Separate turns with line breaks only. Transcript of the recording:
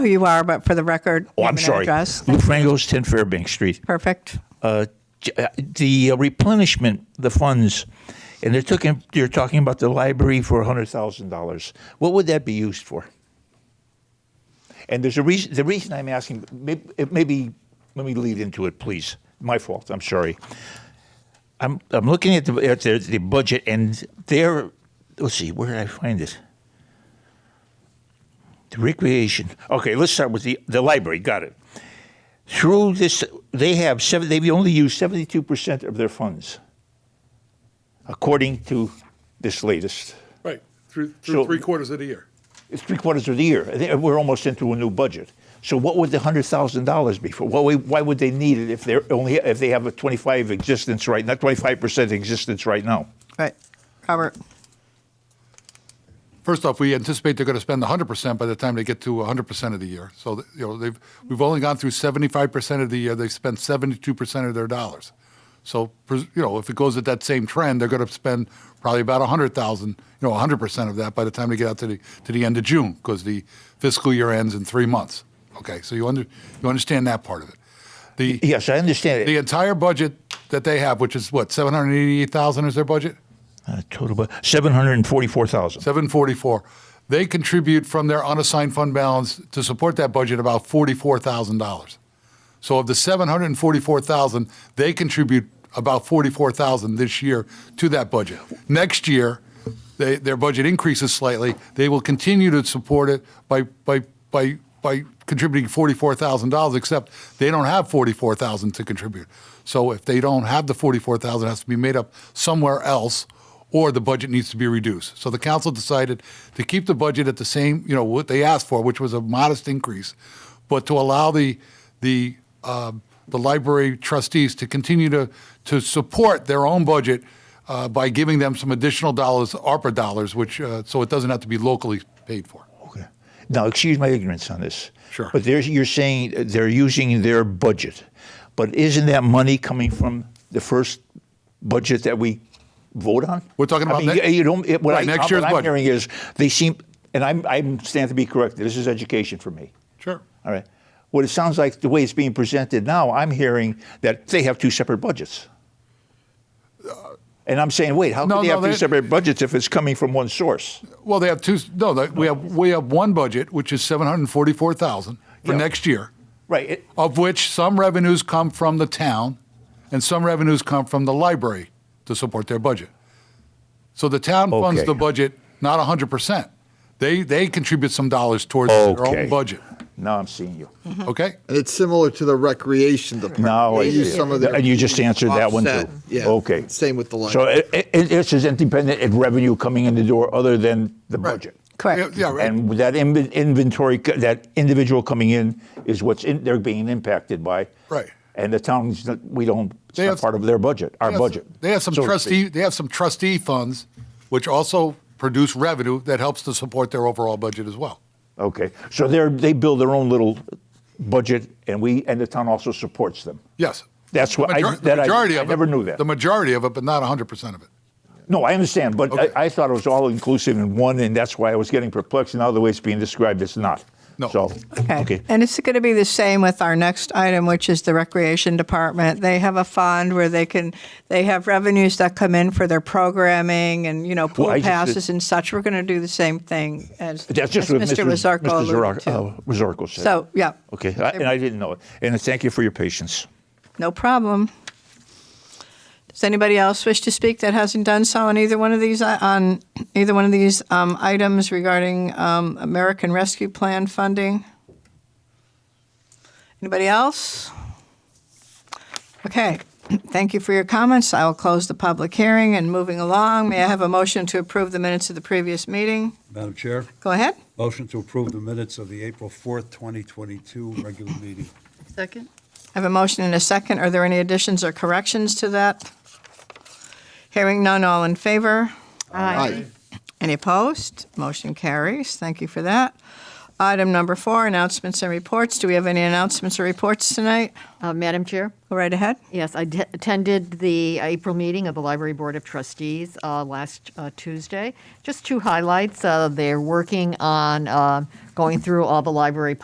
who you are, but for the record,
Oh,
name
I'm
and
sorry.
address.
Lou Frangos, 10 Fairbanks Street.
Perfect.
Uh, j- uh, the replenishment, the funds, and they're, took they're talking about the library for $100,000. What would that be used for? And there's a reason, the reason I'm asking, maybe, maybe let me lead into it, please. My fault, I'm sorry. I'm, I'm looking at the, at the, the budget, and there, let's see, where did I find it? The recreation. Okay, let's start with the, the library. Got it. Through this, they have seven. They've only used seventy-two percent of their funds, according to this latest.
Right, through,
So-
through three quarters of the year.
It's three quarters of the year. They- We're almost into a new budget. So, what would the hundred thousand dollars be for? Why, why would they need it if they're only if they have a twenty-five existence right, not twenty-five percent existence right now?
Right. Robert.
First off, we anticipate they're going to spend 100% by the time they get to 100% of the year. So, th- you know, they've, we've only gone through 75% of the year. They've spent 72% of their dollars. So, pres- you know, if it goes at that same trend, they're going to spend probably about 100,000, you know, 100% of that by the time they get out to the, to the end of June because the fiscal year ends in three months. Okay, so you, under, you understand that part of it. The,
Yes, I understand
the
it.
entire budget that they have, which is what, 788,000 is their budget?
Uh, total, bu- seven hundred and forty-four thousand.
744. They contribute from their unassigned fund balance to support that budget about $44,000. So of the 744,000, they contribute about 44,000 this year to that budget. Next year, they, their budget increases slightly. They will continue to support it by by by by contributing $44,000 except they don't have 44,000 to contribute. So if they don't have the 44,000 it has to be made up somewhere else or the budget needs to be reduced. So the council decided to keep the budget at the same, you know, what they asked for, which was a modest increase, but to allow the the um, the library trustees to continue to to support their own budget uh, by giving them some additional dollars, ARPA dollars, which uh, so it doesn't have to be locally paid for.
Okay. Now, excuse my ignorance on this.
Sure.
But there's, you're saying they're using their budget, but isn't that money coming from the first budget that we vote on?
We're talking about
I mean,
ne-
you don't. It, what
Right,
I,
next year's
what I'm
budget.
hearing is they seem, and I'm, I stand to be corrected. This is education for me.
Sure.
All right. What it sounds like the way it's being presented now, I'm hearing that they have two separate budgets. And I'm saying, wait, how
No,
can they
no,
have two
they-
separate budgets if it's coming from one source?
Well, they have two. No, they, we have we have one budget, which is seven hundred forty-four thousand for
Yeah.
next year.
Right. It,
of which some revenues come from the town and some revenues come from the library to support their budget. So the town funds
Okay.
the budget not 100%. They, they contribute some dollars towards their
Okay.
own budget.
now I'm seeing you.
Okay?
And it's similar to the recreation department.
No,
They
I
use
see.
some of their
and you just answered that one too.
offset. Yeah.
Okay.
Same with the library.
So it, it, it's just independent of revenue coming in the door other than the budget.
Correct.
Yeah, yeah, right.
And that in, inventory, co- that individual coming in is what's in, they're being impacted by.
Right.
And the towns that we don't. It's
They
not
have-
part of their budget. Our
They have-
budget.
They have some
so to
trustee.
speak.
They have some trustee funds, which also produce revenue that helps to support their overall budget as well.
Okay. So they're they build their own little budget, and we and the town also supports them.
Yes,
That's what I,
Major- the
that I,
majority
I
of it-
never knew that.
The majority of it, but not 100 percent of it.
No, I understand, but
Okay.
I, I thought it was all inclusive in one, and that's why I was getting perplexed. And now the way it's being described, it's not.
No.
So,
Okay. And it's going to be the same with our next item, which is the recreation department. They have a fund where they can, they have revenues that come in for their programming and, you know, pool
I just-
passes and such. We're going to do the same thing as,
That's just
as
what Mr.
Lazarco
Mr.
alluded
Zorro-
to.
uh, Wazorko said.
So, yeah.
okay, I, and I didn't know it. And thank you for your patience.
No problem. Does anybody else wish to speak that hasn't done so on either one of these uh, on either one of these um, items regarding um, American Rescue Plan funding? Anybody else? Okay. Thank you for your comments. I will close the public hearing and moving along. May I have a motion to approve the minutes of the previous meeting?
Madam Chair,
Go ahead.
motion to approve the minutes of the April 4th, 2022 regular meeting.
Second?
I have a motion and a second. Are there any additions or corrections to that? Hearing none, all in favor?
eh,
Aye.
Any opposed? Motion carries. Thank you for that. Item number four, announcements and reports. Do we have any announcements or reports tonight?
Uh, Madam Chair?
Go right ahead.
Yes, I d- attended the April meeting of the Library Board of Trustees uh, last uh, Tuesday. Just two highlights. Uh, They're working on uh, going through all the library